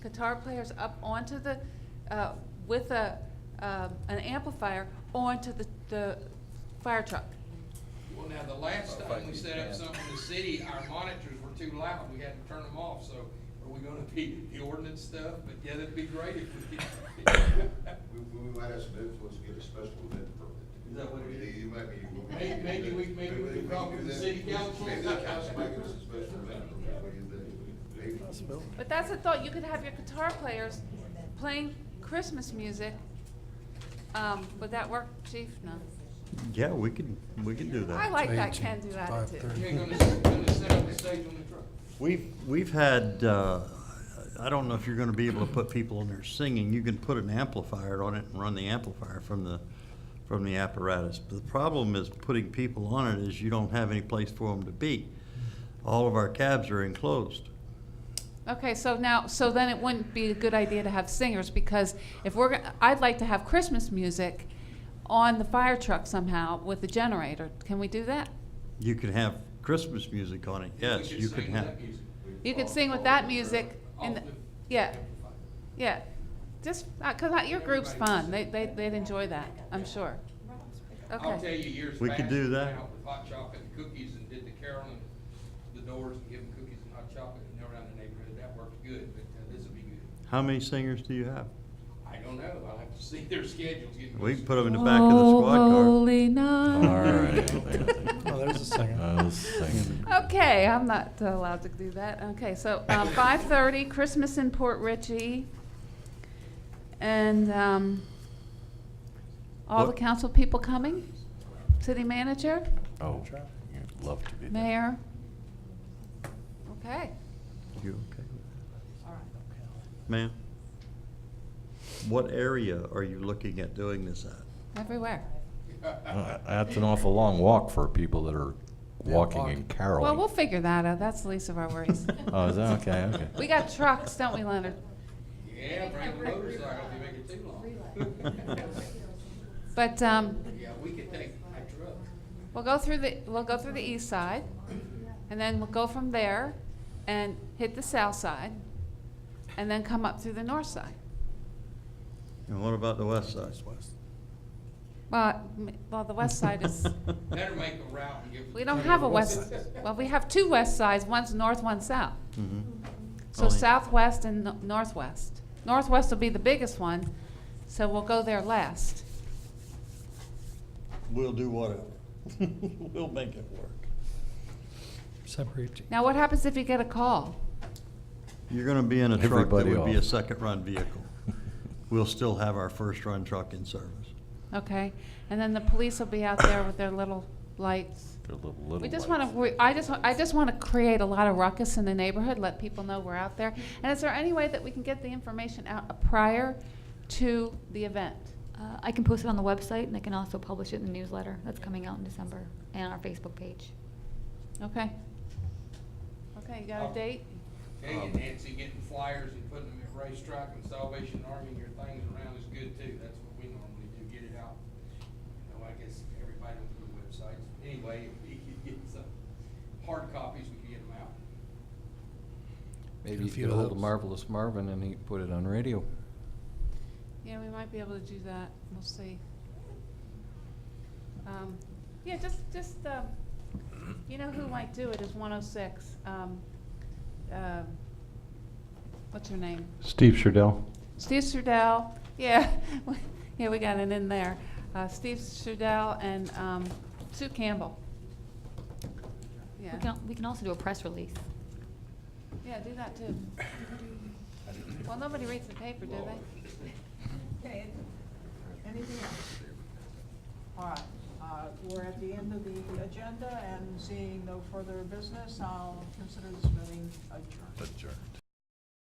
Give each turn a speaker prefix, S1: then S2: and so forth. S1: guitar players up onto the, uh, with a, um, an amplifier onto the, the fire truck.
S2: Well, now, the last time we set up something in the city, our monitors were too loud, we had to turn them off, so are we gonna be the ordinance stuff? But yeah, that'd be great if we could.
S3: We, we might have some influence, to get a special event permit.
S2: Is that what it is?
S3: You might be.
S2: May- maybe we- maybe we can talk to the city council.
S3: Maybe the council might give us a special event permit, what do you think? Maybe.
S1: But that's a thought, you could have your guitar players playing Christmas music. Um, would that work, chief? No.
S4: Yeah, we can, we can do
S1: I
S4: that.
S1: like that can-do attitude.
S2: You ain't gonna, gonna set up the stage on the truck.
S4: We've, we've had, uh, I don't know if you're gonna be able to put people in there singing. You can put an amplifier on it and run the amplifier from the, from the apparatus. But the problem is putting people on it is you don't have any place for them to be. All of our cabs are enclosed.
S1: Okay, so now, so then it wouldn't be a good idea to have singers, because if we're, go- I'd like to have Christmas music on the fire truck somehow with the generator. Can we do that?
S4: You can have Christmas music on it, yes,
S2: We could
S4: you can
S2: sing
S4: have.
S2: that music.
S1: You could
S3: Off-
S1: sing with
S3: off
S1: that
S3: the-
S1: music in,
S2: Off
S1: the-
S2: the
S1: yeah,
S2: amplifier.
S1: yeah. Just, uh, cause I- your group's
S2: Everybody
S1: fun,
S2: sing.
S1: they, they, they'd enjoy that, I'm sure.
S2: I'll tell you,
S1: Okay,
S2: years
S4: We could
S2: back,
S4: do
S2: we
S4: that.
S2: went out with hot chocolate and cookies and did the carol and the doors and give them cookies and hot chocolate and around the neighborhood. That worked good, but uh, this'll be good.
S4: How many singers do you have?
S2: I don't know. I'll have to see their schedules. getting
S4: We
S2: closer.
S4: can put them in the back of the squad car.
S1: Oh, Holy night.
S5: Oh, there's a second.
S6: I was saying,
S1: Okay, I'm not allowed to do that. Okay, so um, 5:30, Christmas in Port Ritchie. And um, all the
S4: What-
S1: council people coming? City manager,
S6: oh, you'd love to be there.
S1: mayor? Okay.
S4: You okay? Ma'am? What area are you looking at doing this at?
S1: Everywhere.
S6: Uh, That's an awful long walk for people that are
S5: Yeah,
S6: walking
S5: walking.
S6: and caroling.
S1: Well, we'll figure that out. That's the least of our worries.
S4: Uh,
S6: Oh, is that, okay, okay.
S1: We got trucks, don't we, Leonard?
S2: Yeah, bring the motorcycle if you make it too long.
S1: But um,
S2: Yeah, we could take a truck.
S1: We'll go through the, we'll go through the east side, and then we'll go from there and hit the south side, and then come up through the north side.
S4: And what about the west side?
S1: Well, m- well, the west side is,
S2: Better make a route and give.
S1: we don't have a west, well, we have two west sides, one's north, one's south.
S4: Mhm.
S1: So
S4: Only-
S1: southwest and no- northwest. Northwest will be the biggest one, so we'll go there last.
S4: We'll do whatever. We'll make it work.
S5: Separate.
S1: Now, what happens if you get a call?
S4: You're gonna be in a truck that
S6: Everybody
S4: would be a
S6: off.
S4: second-run vehicle. We'll still have our first-run truck in service.
S1: Okay, and then the police will be out there with their little lights.
S6: They're little, little
S1: We just
S6: lights.
S1: want to, I just, wa- I just want to create a lot of ruckus in the neighborhood, let people know we're out there. And is there any way that we can get the information out uh, prior to the event?
S7: Uh, I can post it on the website and I can also publish it in the newsletter that's coming out in December and our Facebook page.
S1: Okay? Okay, you got a date?
S2: Hey, and Nancy, getting flyers and putting them at racetrack and Salvation Army and your things around is good too. That's what we normally do, get it out. You know, I guess everybody on the websites. Anyway, if we could get some hard copies, we could get them out.
S5: Get a
S6: Maybe you
S5: few
S6: could
S5: of
S6: hold a
S5: those.
S6: Marvelous Marvin and he could put it on radio.
S1: Yeah, we might be able to do that, we'll see. Um, Yeah, just, just, um, you know who might do it is 106. um, um, What's her name?
S8: Steve Sherdell.
S1: Steve Surdell, yeah, yeah, we got it in there. Uh, Steve Surdell and um, Sue Campbell.
S7: We
S1: Yeah,
S7: can, al- we can also do a press release.
S1: yeah, do that too. Well, nobody reads the paper, do they?
S9: Okay, anything else? All right, uh, we're at the end of the agenda and seeing no further business, I'll consider this meeting adjourned.
S6: Adjourned.